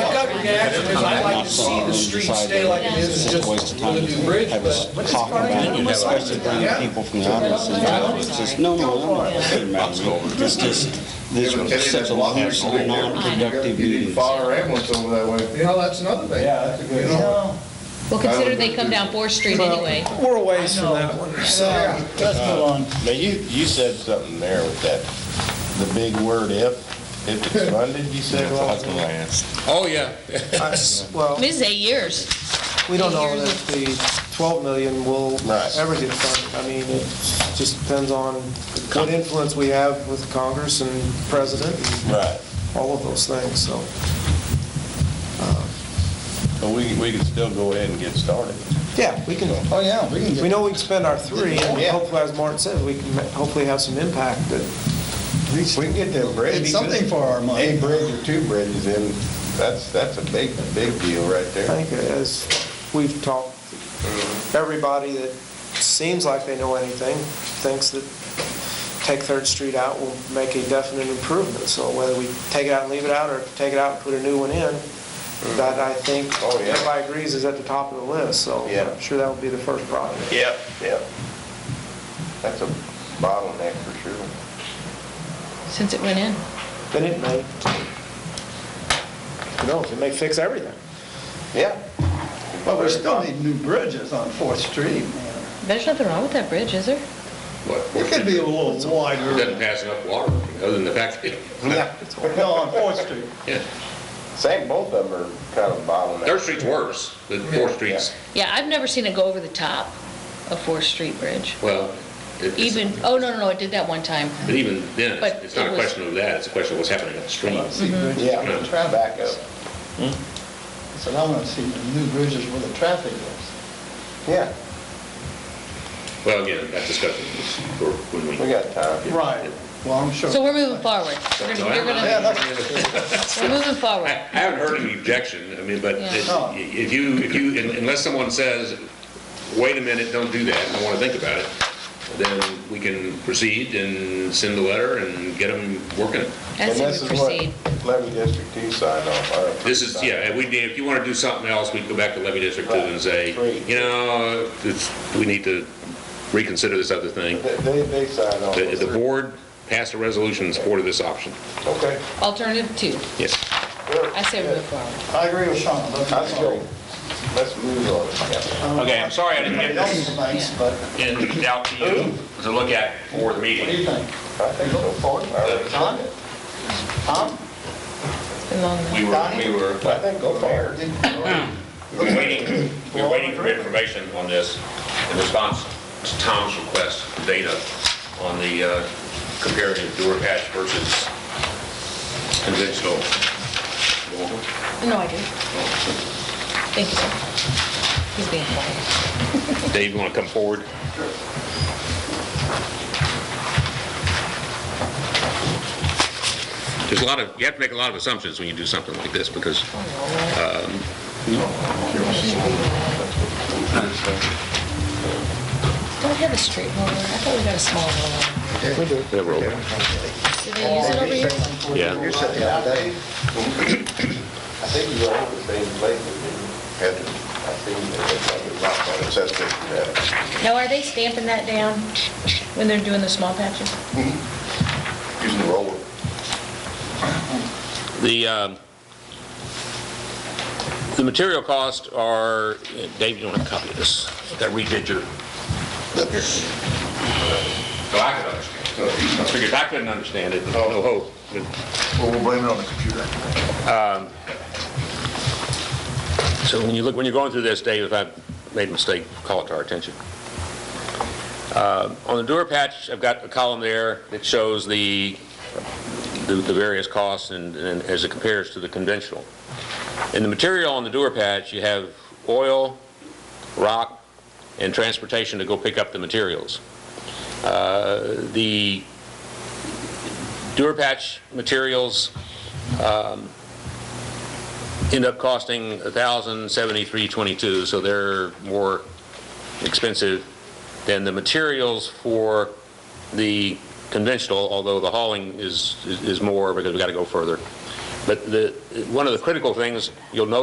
big action is I'd like to see the street stay like it is, just waste of with time. a new bridge, I was but. talking about it, especially bringing people from the audience in. It says, no, no, no, it doesn't matter. It's just, this was such a lot of non-productive You need to meetings. fire our ambulance over that way. You know, that's another thing. Yeah, that's a good- You know, Well, consider they come down Fourth Street anyway. We're a ways from that one, so. Let's go on. Now, you, you said something there with that, the big word if, if it's funded, you said last time. Oh, yeah. Well, This is eight years. we don't know that the 12 million will Right. ever get funded. I mean, it just depends on what influence we have with Congress and President and Right, all of those things, so. but we, we can still go ahead and get started. Yeah, we can, Oh, yeah, we we can get, know we can spend our three, and Yeah. hopefully, as Martin said, we can hopefully have some impact, but We can get that bridge. it's something for our A money. bridge or two bridges in, that's, that's a big, big deal right I there. think as we've talked, everybody that seems like they know anything thinks that take Third Street out will make a definite improvement. So whether we take it out and leave it out, or take it out and put a new one in, that I think Oh, yeah. everybody agrees is at the top of the list, so Yeah. I'm sure that would be the first project. Yep, yep. That's a bottleneck for sure. Since it went in. Then it may, who knows, it may fix everything. Yeah. But we still need new bridges on Fourth Street, man. There's nothing wrong with that bridge, is there? It could be a little It wider. doesn't pass enough water, other than the fact that Yeah. No, on Fourth Street. Same, both of them are kind of bottleneck. Third Street's worse than Fourth Street's. Yeah, I've never seen it go over the top of Fourth Street Bridge. Well, it- it's- Even, oh, no, no, no, it did that one time. but even then, it's- But it's not it a was- question of that, it's a question of what's happening upstream. Yeah, Mhm. back up. Mm-hmm. Hmm? I said, I want to see the new bridges where the traffic is. Yeah, Well, again, that discussion is for when we. we got time. Right, well, I'm sure. So we're moving forward. We're No, gonna- I You're I- gonna, we're moving I forward. haven't heard any objection, I mean, but Yeah. if No. if you, if you, unless someone says, wait a minute, don't do that, I want to think about it, then we can proceed and send a letter and get them working it. As And we this is what proceed. Levy District Two signed off. or- This is, yeah, if we, did- if you want to do something else, we'd go back to levy district two and say, Right. you know, it's, we need to reconsider this other thing. They- They, they signed off. The, the board passed a resolution in support of this option. Okay. Alternative two. Yes. good, I say we good. move forward. I agree with Sean. let's- That's great. Let's move on. Yeah. Okay, I'm sorry I didn't get Thanks, this thanks, but what in, out to you to look at for the do meeting. you think? I think so far. John? Tom? It's been long enough. We were, we were, I think go far. we were waiting, we were waiting for information on this in response to Tom's request, data on the uh, comparative door patch versus conventional. No, I do. Thank you, sir. He's being quiet. Dave, you want to come forward? There's a lot of, you have to make a lot of assumptions when you do something like this, because Don't have a street roller. I thought we got a small roller. Yeah, we're over. Do they use it over here? Yeah. You're sitting out there. I think you were over the same place and you had to, I think they had to rock on it. That's it. Yeah. Now, are they stamping that down when they're doing the small patches? uh, Using the roller. The, um, the material costs are, Dave, you want to copy this? That redid your. So I could understand. I figured I couldn't understand it, no hope. but- Well, we'll blame it on the computer. So when you look, when you're going through this, Dave, if I made a mistake, call it to our attention. Uh, On the Dura patch, I've got a column there that shows the, the the various costs and, and as it compares to the conventional. In the material on the Dura patch, you have oil, rock, and transportation to go pick up the materials. Uh, The Dura patch materials end up costing $1,073.22, so they're more expensive than the materials for the conventional, although the hauling is, is more because we got to go further. But the, one of the critical things you'll notice